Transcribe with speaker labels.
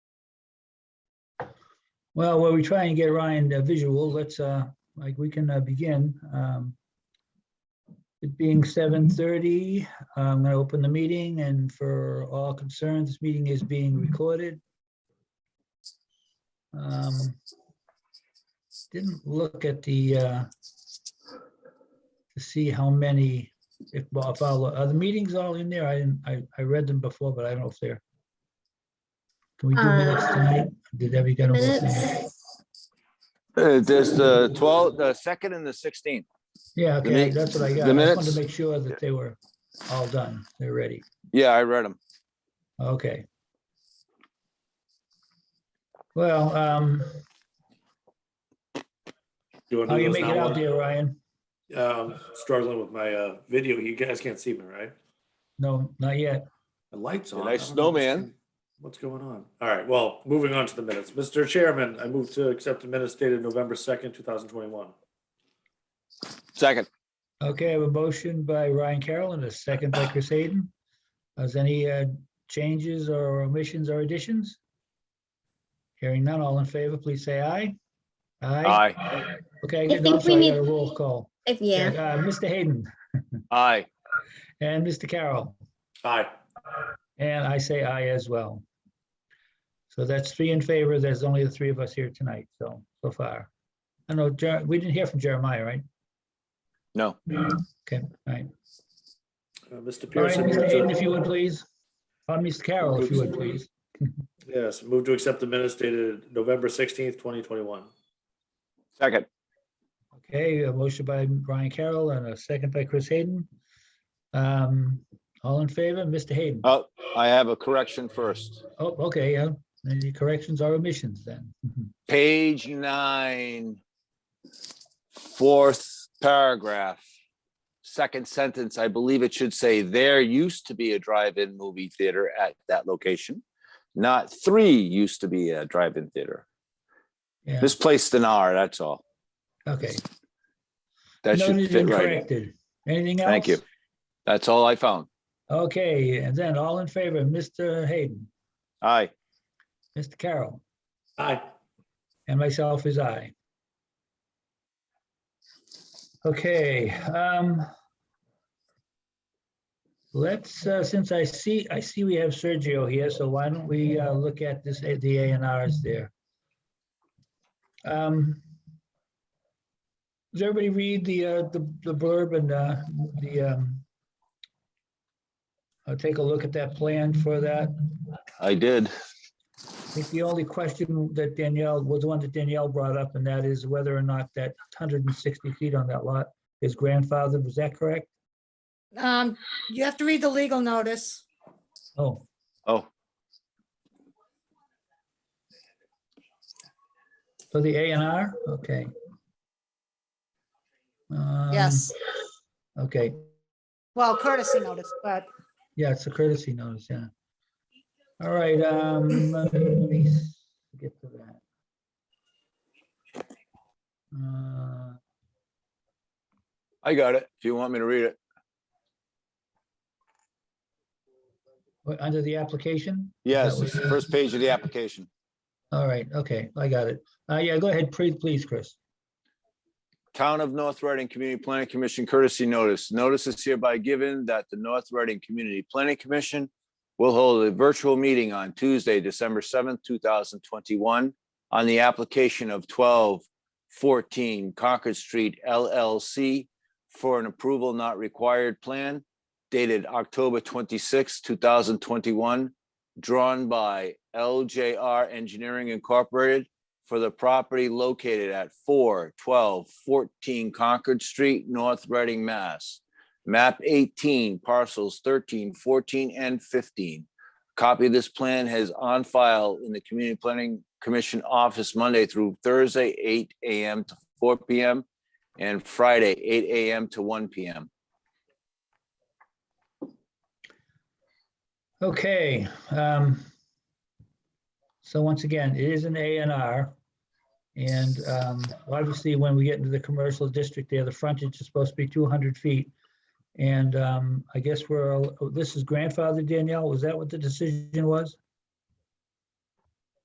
Speaker 1: Well, while we try and get Ryan a visual, let's, uh, like, we can uh, begin. Um, It being seven thirty, I'm gonna open the meeting and for all concerned, this meeting is being recorded. Um, Didn't look at the, uh, to see how many, if, well, if I'll- are the meetings all in there? I didn't, I, I read them before, but I don't know if they're. Can we do minutes
Speaker 2: Uh,
Speaker 1: tonight? Did everybody get a look? at them?
Speaker 2: Minutes,
Speaker 3: Uh, There's the 12, the second and the 16th.
Speaker 1: Yeah,
Speaker 3: The
Speaker 1: okay,
Speaker 3: mi-
Speaker 1: that's what I
Speaker 3: the
Speaker 1: got. I just wanted
Speaker 3: minutes?
Speaker 1: to make sure that they were all done. They're ready.
Speaker 3: Yeah, I read them.
Speaker 1: Okay. Well, um,
Speaker 4: Oh, You want
Speaker 1: how
Speaker 4: to
Speaker 1: you
Speaker 4: do those
Speaker 1: make it out
Speaker 4: now?
Speaker 1: there, Ryan?
Speaker 4: Um, struggling with my, uh, video. You guys can't see me, right?
Speaker 1: No, not yet.
Speaker 4: The lights
Speaker 3: A
Speaker 4: on.
Speaker 3: nice
Speaker 4: I don't know what's
Speaker 3: snowman.
Speaker 4: going- What's going on? All right, well, moving on to the minutes. Mr. Chairman, I move to accept the minutes dated November second, two thousand twenty-one.
Speaker 3: Second,
Speaker 1: Okay, I have a motion by Ryan Carroll and a second by Chris Hayden. Has any uh, changes or omissions or additions? Hearing none, all in favor, please say aye.
Speaker 3: aye,
Speaker 1: Okay,
Speaker 2: I
Speaker 1: good. No, I'm
Speaker 2: think we
Speaker 1: sorry, I got
Speaker 2: need-
Speaker 1: a roll call.
Speaker 2: if, yeah,
Speaker 1: Uh, Mr. Hayden
Speaker 3: aye,
Speaker 1: and Mr. Carroll.
Speaker 4: Aye.
Speaker 1: And I say aye as well. So that's three in favor. There's only the three of us here tonight, so, so far. I know, Jer- we didn't hear from Jeremiah, right?
Speaker 3: no.
Speaker 1: Okay, all right.
Speaker 4: Uh, Mr.
Speaker 1: All right,
Speaker 4: Pearson.
Speaker 1: Mr. Hayden, if you would
Speaker 4: moved to-
Speaker 1: please. Uh, Mr. Carroll, if you would please.
Speaker 4: Yes, move to accept the minutes dated November sixteenth, twenty twenty-one.
Speaker 3: Second,
Speaker 1: Okay, a motion by Brian Carroll and a second by Chris Hayden. Um, All in favor, Mr. Hayden?
Speaker 3: oh, I have a correction first.
Speaker 1: Oh, okay, yeah. Any corrections or omissions then? Mhm.
Speaker 3: Page nine, fourth paragraph, second sentence, I believe it should say, there used to be a drive-in movie theater at that location. Not three used to be a drive-in theater.
Speaker 1: Yeah,
Speaker 3: Misplaced an R, that's all.
Speaker 1: okay.
Speaker 3: That should
Speaker 1: Noted
Speaker 3: fit
Speaker 1: and
Speaker 3: right.
Speaker 1: corrected. Anything else?
Speaker 3: Thank you. That's all I found.
Speaker 1: Okay, and then all in favor, Mr. Hayden,
Speaker 3: Aye.
Speaker 1: Mr. Carroll,
Speaker 4: Aye.
Speaker 1: and myself is I. Okay, um. Let's, uh, since I see, I see we have Sergio here, so why don't we, uh, look at this, at the A and Rs there. Um. Does everybody read the, uh, the the blurb and, uh, the, um. I'll take a look at that plan for that.
Speaker 3: I did.
Speaker 1: I think the only question that Danielle, was the one that Danielle brought up, and that is whether or not that 160 feet on that lot is grandfathered, was that correct?
Speaker 5: Um, you have to read the legal notice.
Speaker 1: Oh,
Speaker 3: Oh,
Speaker 1: for the A and R, okay. Um,
Speaker 5: Yes.
Speaker 1: Okay,
Speaker 5: Well, courtesy notice, but
Speaker 1: yeah, it's a courtesy notice, yeah. All right, um, let me s- get to that. Uh,
Speaker 3: I got it. If you want me to read it.
Speaker 1: what, Under the application? Is that
Speaker 3: Yes,
Speaker 1: what
Speaker 3: it's
Speaker 1: it
Speaker 3: the
Speaker 1: is?
Speaker 3: first page of the application.
Speaker 1: All right, okay, I got it. Uh, yeah, go ahead, pre- please, Chris.
Speaker 3: Town of North Reading Community Planning Commission courtesy notice. Notice is hereby given that the North Reading Community Planning Commission will hold a virtual meeting on Tuesday, December seventh, two thousand twenty-one on the application of twelve fourteen Concord Street LLC for an approval not required plan dated October twenty-sixth, two thousand twenty-one, drawn by LJR Engineering Incorporated for the property located at 412 14 Concord Street, North Reading, Mass. Map eighteen parcels 13, 14, and fifteen. Copy of this plan has on file in the Community Planning Commission office Monday through Thursday, eight AM to four PM and Friday, eight AM to one PM.
Speaker 1: Okay, um, so once again, it is an A and R. And, um, obviously, when we get into the commercial district there, the frontage is supposed to be two hundred feet. And, um, I guess we're, all- this is grandfather Danielle, was that what the decision was?